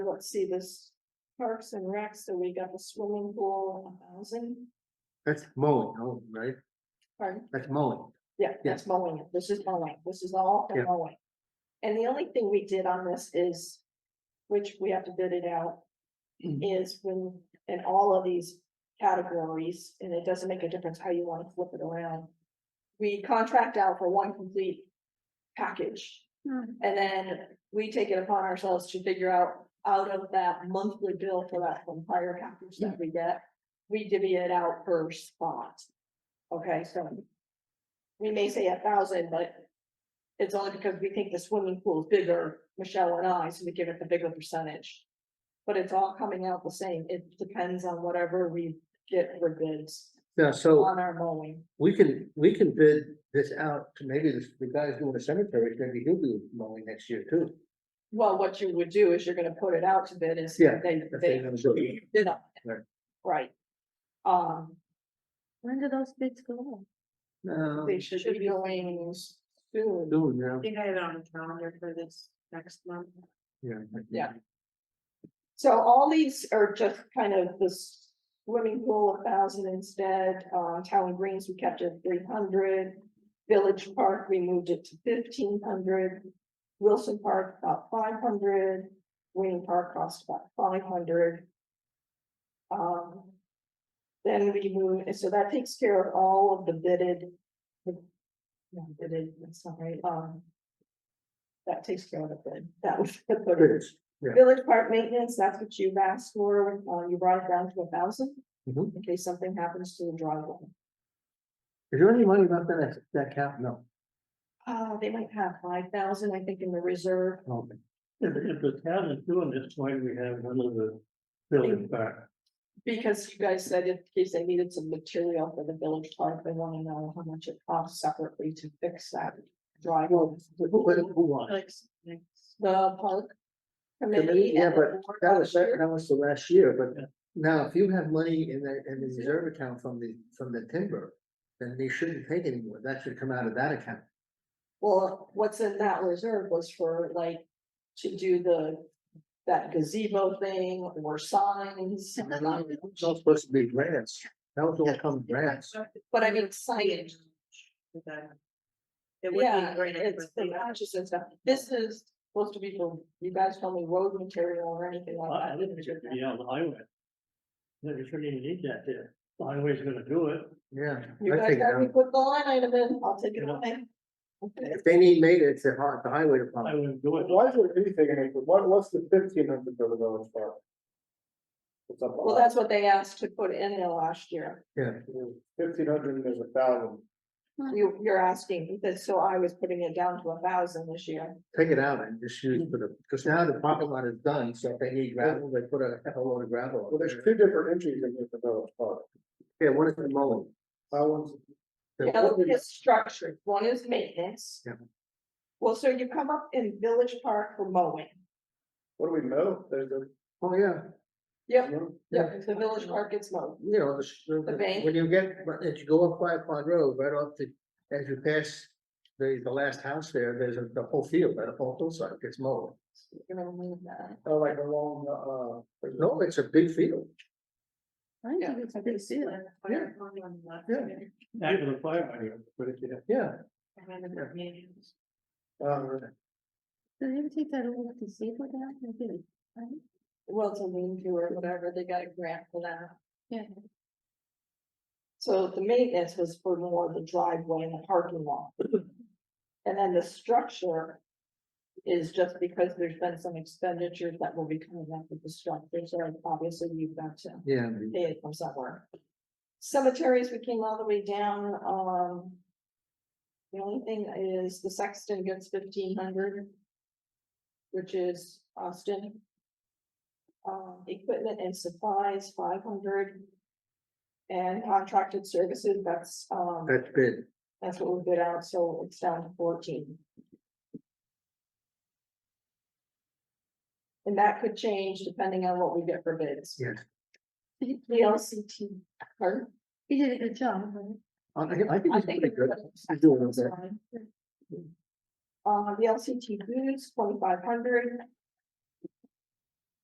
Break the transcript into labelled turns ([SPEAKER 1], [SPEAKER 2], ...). [SPEAKER 1] let's see this. Parks and Rec, so we got the swimming pool, a thousand,
[SPEAKER 2] That's mowing, oh, right?
[SPEAKER 1] pardon?
[SPEAKER 2] That's mowing.
[SPEAKER 1] Yeah, that's mowing. it. This is mowing. This is all the
[SPEAKER 2] Yeah.
[SPEAKER 1] mowing. And the only thing we did on this is, which we have to bid it out, is when, in all of these categories, and it doesn't make a difference how you want to flip it around. We contract out for one complete package.
[SPEAKER 3] Hmm.
[SPEAKER 1] And then we take it upon ourselves to figure out, out of that monthly bill for that entire package that we get, we divvy it out per spot. Okay, so we may say a thousand, but it's only because we think the swimming pool is bigger, Michelle and I, so we give it the bigger percentage. But it's all coming out the same. It depends on whatever we get for bids
[SPEAKER 2] Yeah, so
[SPEAKER 1] on our mowing.
[SPEAKER 2] we can, we can bid this out to maybe the, the guys doing the cemetery, maybe he'll do mowing next year too.
[SPEAKER 1] Well, what you would do is you're gonna put it out to bid and see
[SPEAKER 2] Yeah,
[SPEAKER 1] if they,
[SPEAKER 2] if they're
[SPEAKER 1] they
[SPEAKER 2] gonna do it.
[SPEAKER 1] bid on it.
[SPEAKER 2] Right.
[SPEAKER 1] Right. Um,
[SPEAKER 3] When do those bids go on?
[SPEAKER 2] No,
[SPEAKER 1] they Um, should be going soon.
[SPEAKER 2] doing now.
[SPEAKER 3] think I have it on the calendar for this next month.
[SPEAKER 2] Yeah. I think.
[SPEAKER 1] Yeah. So all these are just kind of this swimming pool, a thousand instead, uh, town and greens, we kept it three hundred. Village Park, we moved it to fifteen hundred. Wilson Park, about five hundred. Wayne Park cost about five hundred. Um. Then we move, and so that takes care of all of the bidded. the- No, bidded, that's not right, um. That takes care of the bid, that was the bid.
[SPEAKER 2] Bids, yeah.
[SPEAKER 1] Village park maintenance, that's what you asked for, uh, you brought it down to a thousand,
[SPEAKER 2] Mhm.
[SPEAKER 1] in case something happens to the driveway.
[SPEAKER 2] Is there any money left in that, that cap? No.
[SPEAKER 1] Uh, they might have five thousand, I think, in the reserve,
[SPEAKER 2] Okay.
[SPEAKER 4] If, if the town is doing this, why do we have none of the building back?
[SPEAKER 1] because you guys said in case they needed some material for the village park, they wanna know how much it costs separately to fix that driveway.
[SPEAKER 2] Who, who who won?
[SPEAKER 3] Like, next-
[SPEAKER 1] The park committee.
[SPEAKER 2] Committee, yeah,
[SPEAKER 1] and the
[SPEAKER 2] but
[SPEAKER 1] board
[SPEAKER 2] That was,
[SPEAKER 1] last
[SPEAKER 2] that
[SPEAKER 1] year.
[SPEAKER 2] that was the last year,
[SPEAKER 4] Yeah.
[SPEAKER 2] but now if you have money in the, in the reserve account from the, from the timber, then they shouldn't take any more. That should come out of that account.
[SPEAKER 1] Well, what's in that reserve was for like, to do the, that gazebo thing or signs.
[SPEAKER 2] And then I- it was all supposed to be grants. That was all come grants.
[SPEAKER 1] But I mean signage,
[SPEAKER 3] Okay. It would be
[SPEAKER 1] yeah,
[SPEAKER 3] great if it
[SPEAKER 1] it's
[SPEAKER 3] was
[SPEAKER 1] the
[SPEAKER 3] the-
[SPEAKER 1] matches and stuff. This is supposed to be for, you guys tell me road material or anything
[SPEAKER 4] I,
[SPEAKER 5] Oh,
[SPEAKER 1] like
[SPEAKER 4] I
[SPEAKER 1] that.
[SPEAKER 4] didn't think it'd be on the highway. No, you shouldn't even need that there. The highway's gonna do it.
[SPEAKER 2] Yeah.
[SPEAKER 1] You
[SPEAKER 2] I
[SPEAKER 1] guys
[SPEAKER 2] think
[SPEAKER 1] got me
[SPEAKER 2] that-
[SPEAKER 1] put the line item in, I'll take it
[SPEAKER 4] Yeah.
[SPEAKER 1] away. Okay.
[SPEAKER 2] If they need maintenance, it's the hi- the highway
[SPEAKER 4] I
[SPEAKER 2] department.
[SPEAKER 4] wouldn't do it.
[SPEAKER 5] Why is it anything, Hank? what, what's the fifteen hundred for the village park? It's up.
[SPEAKER 1] Well, that's what they asked to put in there last year.
[SPEAKER 5] Fifteen hundred and there's a thousand.
[SPEAKER 1] You, you're asking, because so I was putting it down to a thousand this year.
[SPEAKER 2] Take it out and just use for the, because now the parking lot is done, so if they need gravel, they put a hell of a load of gravel.
[SPEAKER 5] Well, there's two different entries in here for village park.
[SPEAKER 2] Yeah, one is the mowing.
[SPEAKER 5] That one's,
[SPEAKER 1] The other is structured, one is maintenance.
[SPEAKER 2] Yeah.
[SPEAKER 1] Well, so you come up in Village Park for mowing.
[SPEAKER 5] what do we know? There's a.
[SPEAKER 2] Oh, yeah.
[SPEAKER 1] Yep,
[SPEAKER 2] Yeah.
[SPEAKER 1] yep, the Village Park gets mowed.
[SPEAKER 2] you know, the, s- the-
[SPEAKER 1] The
[SPEAKER 2] the-
[SPEAKER 1] bank?
[SPEAKER 2] when you get, as you go up Quiet Pond Road, right off the, as you pass the, the last house there, there's a, the whole field, that whole hillside gets mowed.
[SPEAKER 1] You're gonna move that.
[SPEAKER 5] Oh, like a long, uh, there's no,
[SPEAKER 2] No, it's a big field.
[SPEAKER 3] I think
[SPEAKER 1] Yeah.
[SPEAKER 3] it's a big deal.
[SPEAKER 2] Yeah. Yeah.
[SPEAKER 4] Back to the fire hydrant, but if you have
[SPEAKER 2] Yeah.
[SPEAKER 5] uh,
[SPEAKER 3] Do they ever take that old gazebo down? They did, right?
[SPEAKER 1] Well, it's a lean to or whatever, they got a grant for that.
[SPEAKER 3] Yeah.
[SPEAKER 1] So the maintenance was for more of the driveway and the parking lot. And then the structure is just because there's been some expenditures that will be coming up with the structure, so obviously you've got to
[SPEAKER 2] Yeah.
[SPEAKER 1] pay it from somewhere. Cemeteries, we came all the way down, um. The only thing is the Sexton gets fifteen hundred. Which is Austin. Um, equipment and supplies, five hundred. And contracted services, that's, um,
[SPEAKER 2] That's big.
[SPEAKER 1] that's what we bid out, so it's down to fourteen. And that could change depending on what we get for bids.
[SPEAKER 2] Yes.
[SPEAKER 1] The LCT, pardon?
[SPEAKER 3] He did a good job, right?
[SPEAKER 2] I, I think
[SPEAKER 1] Uh-huh. I
[SPEAKER 2] it's
[SPEAKER 1] think
[SPEAKER 2] pretty
[SPEAKER 1] it's
[SPEAKER 2] good.
[SPEAKER 1] good.
[SPEAKER 2] He's doing okay.
[SPEAKER 1] Uh, the LCT booths, twenty-five hundred,